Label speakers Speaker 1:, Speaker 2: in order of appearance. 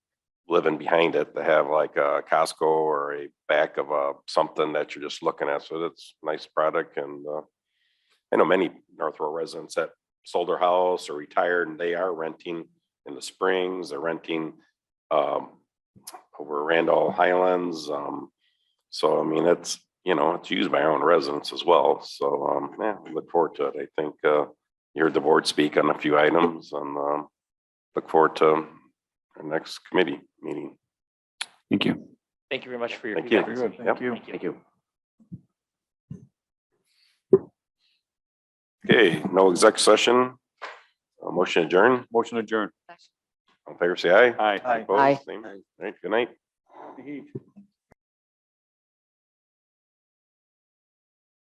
Speaker 1: living behind it. They have like a Costco or a back of a something that you're just looking at. So that's a nice product and uh, I know many North Row residents that sold their house or retired and they are renting in the Springs, they're renting um, over Randall Highlands. Um, so I mean, it's, you know, it's used by our own residents as well. So um, yeah, we look forward to it. I think uh, you heard the board speak on a few items and um, look forward to our next committee meeting.
Speaker 2: Thank you.
Speaker 3: Thank you very much for your.
Speaker 1: Thank you.
Speaker 3: feedback.
Speaker 1: Very good. Thank
Speaker 2: you.
Speaker 3: Thank you.
Speaker 1: Okay, no exec session. Uh, Motion adjourned.
Speaker 2: Motion adjourned.
Speaker 1: All in favor, say aye.
Speaker 2: Aye.
Speaker 1: Opposed?
Speaker 4: Aye.
Speaker 1: Same. All right, good night.